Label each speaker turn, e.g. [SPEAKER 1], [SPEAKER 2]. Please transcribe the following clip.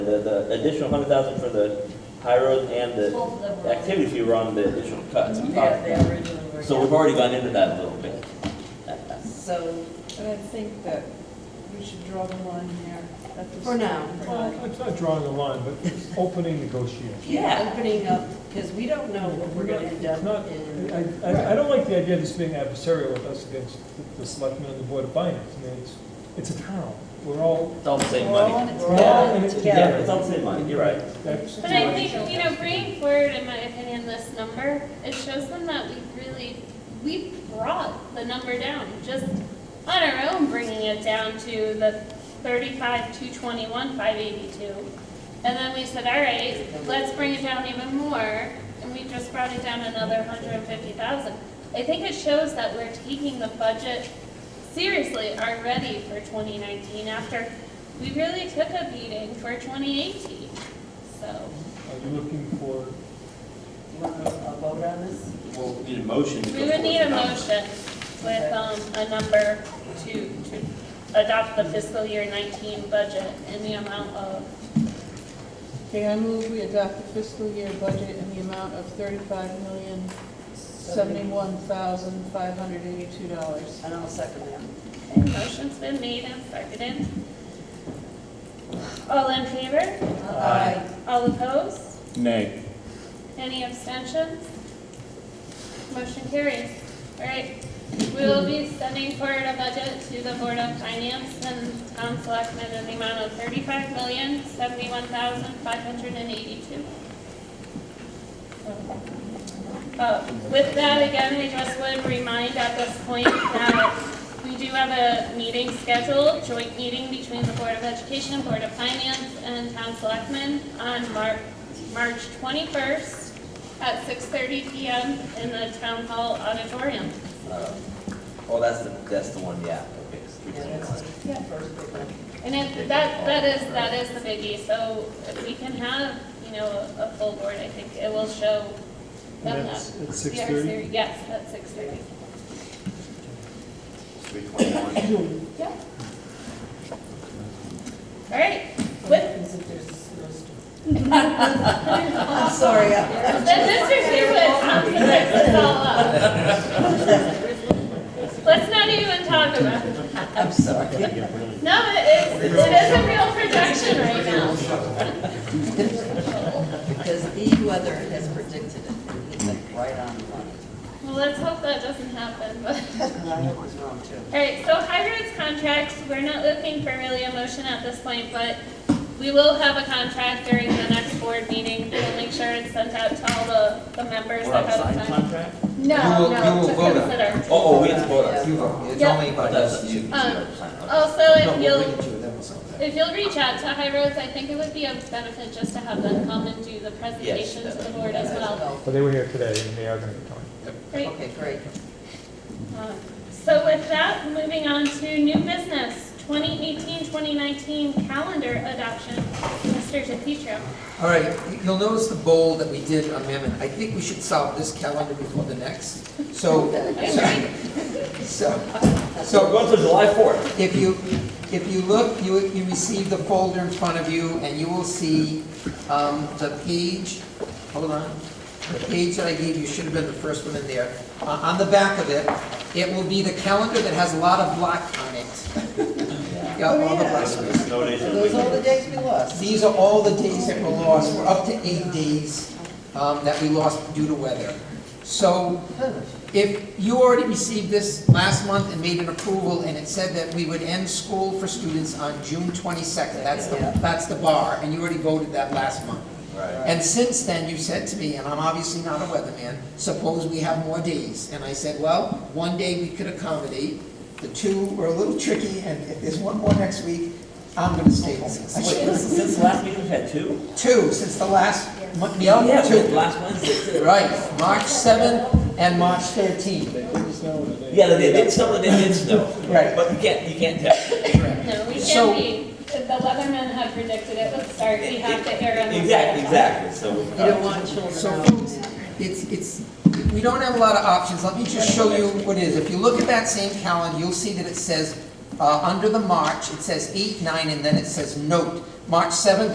[SPEAKER 1] The, the additional hundred thousand for the high road and the
[SPEAKER 2] Both of them.
[SPEAKER 1] activity fee were on the additional cuts. we
[SPEAKER 2] Mm-hmm. Yeah,
[SPEAKER 1] talked
[SPEAKER 2] they
[SPEAKER 1] about.
[SPEAKER 2] originally were.
[SPEAKER 1] So we've already gone into that a little bit.
[SPEAKER 2] So,
[SPEAKER 3] But I think that we should draw the line there. at this-
[SPEAKER 2] For now.
[SPEAKER 4] Well, it's Uh, not drawing a line, but it's opening negotiations.
[SPEAKER 2] yeah, opening up, because we don't know what we're gonna end
[SPEAKER 4] It's not-
[SPEAKER 2] up in.
[SPEAKER 4] I, I- I don't like the idea of this being adversarial with us against the- the selectmen and the board of finance. I mean, it's, it's a town, we're all,
[SPEAKER 1] It's all the same
[SPEAKER 3] We're all
[SPEAKER 1] money.
[SPEAKER 3] in it
[SPEAKER 4] we're all
[SPEAKER 3] together.
[SPEAKER 4] in it
[SPEAKER 1] Yeah,
[SPEAKER 4] together.
[SPEAKER 1] it's all the same money, you're right.
[SPEAKER 4] That's-
[SPEAKER 5] But I think, you know, bringing forward, in my opinion, this number, it shows them that we really, we brought the number down, just on our own, bringing it down to the thirty-five, two twenty-one, five eighty-two. And then we said, all right, let's bring it down even more, and we just brought it down another hundred and fifty thousand. I think it shows that we're taking the budget seriously already for twenty nineteen, after we really took a beating for twenty eighteen, so.
[SPEAKER 4] Are you looking for,
[SPEAKER 2] You want a a vote on this?
[SPEAKER 1] Well, we need a motion. to go
[SPEAKER 5] We would need a
[SPEAKER 1] forward.
[SPEAKER 5] motion with um, a number to, to adopt the fiscal year 19 budget in the amount of,
[SPEAKER 3] Okay, I move we adopt the fiscal year budget in the amount of thirty-five million, seventy-one thousand, five hundred eighty-two dollars.
[SPEAKER 2] And I'll second that.
[SPEAKER 5] motion's been made and seconded. All in favor?
[SPEAKER 2] Aye.
[SPEAKER 5] All opposed?
[SPEAKER 6] Nay.
[SPEAKER 5] Any abstentions? Motion carries. All right, we will be sending forward a budget to the Board of Finance and Town Selectmen in the amount of thirty-five million, seventy-one thousand, five hundred and eighty-two. Uh, With that, again, I just would remind at this point that we do have a meeting scheduled, joint meeting between the Board of Education, Board of Finance, and Town Selectmen on Mar- March 21st at 6:30 PM in the Town Hall Auditorium.
[SPEAKER 1] Uh, Oh, that's the, that's the one, yeah, okay. it's three
[SPEAKER 2] Yeah,
[SPEAKER 1] point
[SPEAKER 2] that's
[SPEAKER 1] one.
[SPEAKER 2] the first big one.
[SPEAKER 5] And if, that, that is, that is the biggie, so if we can have, you know, a a full board, I think it will show them
[SPEAKER 4] And
[SPEAKER 5] that.
[SPEAKER 4] that's at
[SPEAKER 5] we are
[SPEAKER 4] 6:30?
[SPEAKER 5] seri- Yes, at 6:30.
[SPEAKER 1] Three point one.
[SPEAKER 5] Yeah. All right, with,
[SPEAKER 2] Happens if there's a snowstorm. I'm sorry. I-
[SPEAKER 5] the district sequence, I'm gonna mix this all up. Let's not even talk about it.
[SPEAKER 2] I'm sorry.
[SPEAKER 5] No, it is, it is a real projection right now.
[SPEAKER 2] Because the weather has predicted it, and he's like right on the money.
[SPEAKER 5] Well, let's hope that doesn't happen, but.
[SPEAKER 2] And I hope it's wrong too.
[SPEAKER 5] All right, so hydrant's contracts, we're not looking for really a motion at this point, but we will have a contract during the next board meeting. We'll make sure it's sent out to all the, the members
[SPEAKER 1] We're on
[SPEAKER 5] ahead of
[SPEAKER 1] signed
[SPEAKER 5] time.
[SPEAKER 1] contract?
[SPEAKER 7] You
[SPEAKER 5] No,
[SPEAKER 7] will- you
[SPEAKER 5] no,
[SPEAKER 7] will
[SPEAKER 5] to
[SPEAKER 7] vote on it.
[SPEAKER 5] consider.
[SPEAKER 1] Oh, oh, we have to vote on it.
[SPEAKER 7] You vote, it's
[SPEAKER 5] Yeah.
[SPEAKER 7] only
[SPEAKER 1] Oh,
[SPEAKER 7] about
[SPEAKER 1] that's
[SPEAKER 7] us.
[SPEAKER 1] you. you
[SPEAKER 5] Um,
[SPEAKER 1] never signed, okay.
[SPEAKER 5] Also,
[SPEAKER 7] No,
[SPEAKER 5] if
[SPEAKER 7] we'll
[SPEAKER 5] you'll,
[SPEAKER 7] bring it to them or something.
[SPEAKER 5] if you'll reach out to High Roads, I think it would be a benefit just to have them come and do the presentation to the board as well.
[SPEAKER 4] well, they were here today, and they are going to be coming.
[SPEAKER 5] Great.
[SPEAKER 2] Okay, great.
[SPEAKER 5] Um, So with that, moving on to new business, 2018-2019 calendar adoption. Mr. DePietro.
[SPEAKER 7] All right, you'll notice the bold that we did amendment. I think we should solve this calendar before the next. So, so,
[SPEAKER 1] We're
[SPEAKER 7] so
[SPEAKER 1] going to July fourth.
[SPEAKER 7] if you, if you look, you, you receive the folder in front of you, and you will see um, the page, hold on, the page that I gave you should have been the first one in there. Uh, On the back of it, it will be the calendar that has a lot of black on it. Yeah, all the black space.
[SPEAKER 1] No days in a
[SPEAKER 2] Those
[SPEAKER 1] week.
[SPEAKER 2] are the days we lost.
[SPEAKER 7] These are all the days that were lost, we're up to eight days um, that we lost due to weather. So if you already received this last month and made an approval, and it said that we would end school for students on June 22nd, that's the,
[SPEAKER 2] Yeah.
[SPEAKER 7] that's the bar, and you already voted that last month.
[SPEAKER 1] Right.
[SPEAKER 7] And since then, you said to me, and I'm obviously not a weatherman, suppose we have more days. And I said, well, one day we could accommodate, the two were a little tricky, and if there's one more next week, I'm gonna stay home.
[SPEAKER 1] Wait, since, since last week we've had two?
[SPEAKER 7] Two, since the last month,
[SPEAKER 1] Yeah, oh, yeah, we had
[SPEAKER 7] two.
[SPEAKER 1] last Wednesday too.
[SPEAKER 7] Right, March 7th and March 13th.
[SPEAKER 1] Yeah, they did, did some, they did snow.
[SPEAKER 7] Right.
[SPEAKER 1] But you can't, you can't tell.
[SPEAKER 5] No, we
[SPEAKER 7] So-
[SPEAKER 5] can't be, the weathermen have predicted it would start, we have to err on the side
[SPEAKER 1] Exactly,
[SPEAKER 5] of
[SPEAKER 1] exactly, so. uh,
[SPEAKER 2] You don't want children
[SPEAKER 7] So
[SPEAKER 2] out.
[SPEAKER 7] folks, it's, it's, we don't have a lot of options, let me just show you what it is. If you look at that same calendar, you'll see that it says, uh, under the March, it says 8, 9, and then it says note. March 7th